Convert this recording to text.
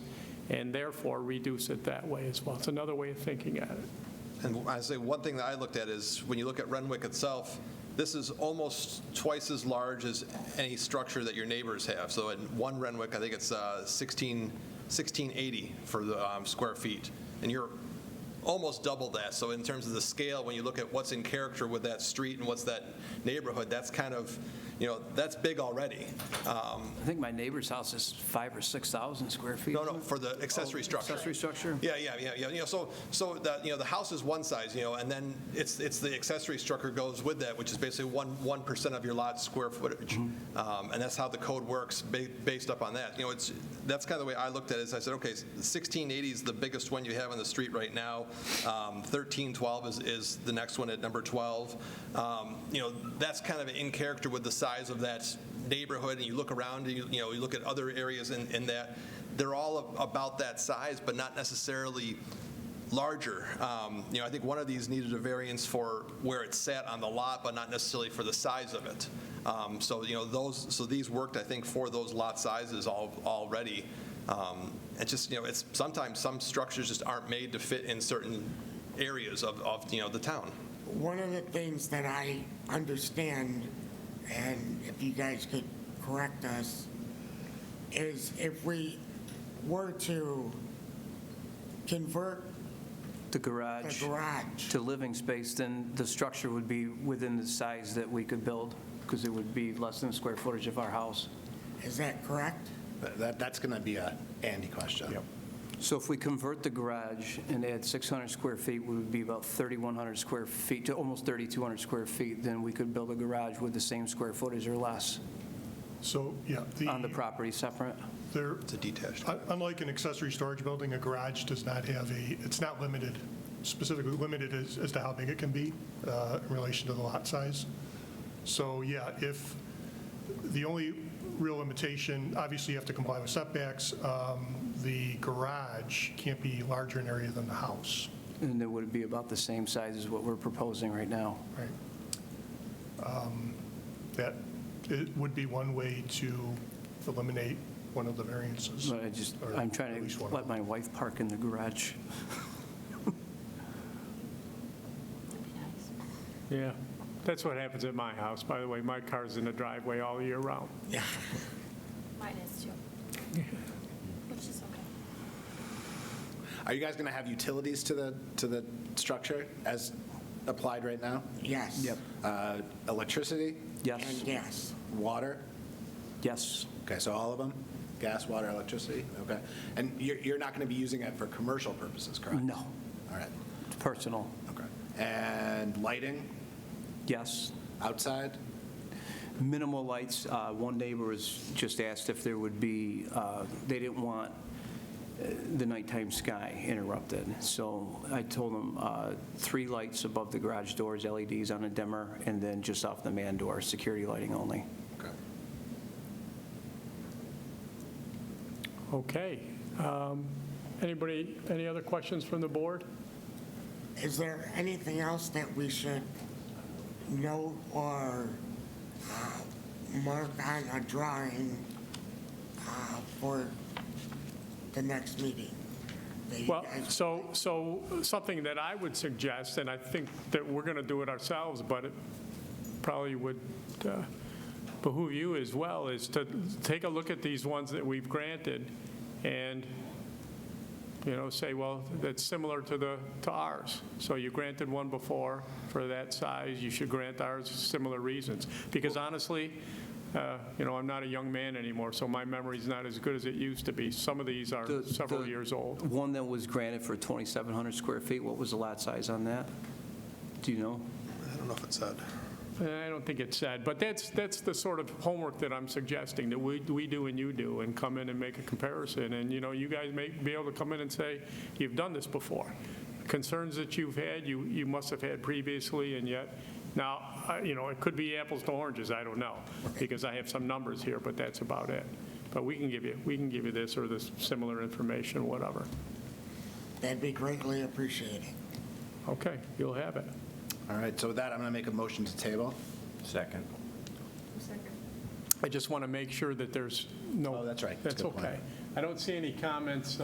and therefore reduce it that way as well. It's another way of thinking at it. And I say, one thing that I looked at is, when you look at Renwick itself, this is almost twice as large as any structure that your neighbors have. So in one Renwick, I think it's uh, 16, 1680 for the um, square feet, and you're almost double that. So in terms of the scale, when you look at what's in character with that street and what's that neighborhood, that's kind of, you know, that's big already. Um, I think my neighbor's house is five or 6,000 square feet. No, no, for the accessory structure. Accessory structure? Yeah, yeah, yeah, yeah, you know, so, so that, you know, the house is one size, you know, and then it's, it's the accessory structure goes with that, which is basically one, 1% of your lot's square footage. Um, And that's how the code works, ba- based up on that. You know, it's, that's kind of the way I looked at it, is I said, okay, 1680 is the biggest one you have on the street right now. Um, 1312 is, is the next one at number 12. Um, You know, that's kind of in character with the size of that neighborhood, and you look around, and you, you know, you look at other areas in, in that, they're all ab- about that size, but not necessarily larger. Um, You know, I think one of these needed a variance for where it sat on the lot, but not necessarily for the size of it. Um, So, you know, those, so these worked, I think, for those lot sizes al- already. Um, It's just, you know, it's, sometimes some structures just aren't made to fit in certain areas of, of, you know, the town. One of the things that I understand, and if you guys could correct us, is if we were to convert The the garage garage, to living space, then the structure would be within the size that we could build, because it would be less than the square footage of our house. is that correct? That- That, that's going to be a Andy question. So if we convert the garage and add 600 square feet, we would be about 3,100 square feet to almost 3,200 square feet, then we could build a garage with the same square footage or less So, yeah. on the property separate. there- It's a detached. un- Unlike an accessory storage building, a garage does not have a, it's not limited, specifically limited as, as to how big it can be uh, in relation to the lot size. So, yeah, if, the only real limitation, obviously you have to comply with setbacks. Um, The garage can't be larger in area than the house, And it would be about the same size as what we're proposing right now. right? Um, That, it would be one way to eliminate one of the variances. But I just, or I'm at trying least to one of let them. my wife park in the garage. Yeah, that's what happens at my house, by the way. My car's in the driveway all year round. Mine is too. Which is okay. Are you guys going to have utilities to the, to the structure as applied right now? Yes. Uh, Electricity, And Yes, yes. water? yes. Okay, so all of them? Gas, water, electricity? Okay. And you're, you're not going to be using it for commercial purposes, correct? No. All right, Personal, okay. And lighting yes. outside? Minimal lights, uh, one neighbor was just asked if there would be, uh, they didn't want uh, the nighttime sky interrupted. So I told them uh, three lights above the garage doors, LEDs on a dimmer, and then just off the man door, security lighting only. Okay. Okay. Um, Anybody, any other questions from the board? Is there anything else that we should note or uh, mark on a drawing uh, for the next meeting? that you Well, guys- so, so something that I would suggest, and I think that we're going to do it ourselves, but it probably would uh, behoove you as well, is to take a look at these ones that we've granted and, you know, say, well, that's similar to the, to ours. So you granted one before for that size, you should grant ours similar reasons. Because honestly, uh, you know, I'm not a young man anymore, so my memory's not as good as it used to be. Some of these are The- several the years old. One that was granted for 2,700 square feet, what was the lot size on that? Do you know? I don't know if it said. Uh, I don't think it's said, but that's, that's the sort of homework that I'm suggesting, that we, we do and you do, and come in and make a comparison, and, you know, you guys may be able to come in and say, you've done this before. Concerns that you've had, you, you must have had previously, and yet, now, I- you know, it could be apples to oranges, I don't know, because I have some numbers here, but that's about it. But we can give you, we can give you this or this similar information, whatever. That'd be greatly appreciated. Okay, you'll have it. All right, so with that, I'm going to make a motion to table. Second. I just want to make sure that there's no. Oh, that's right. That's That's a good point. okay. I don't see any comments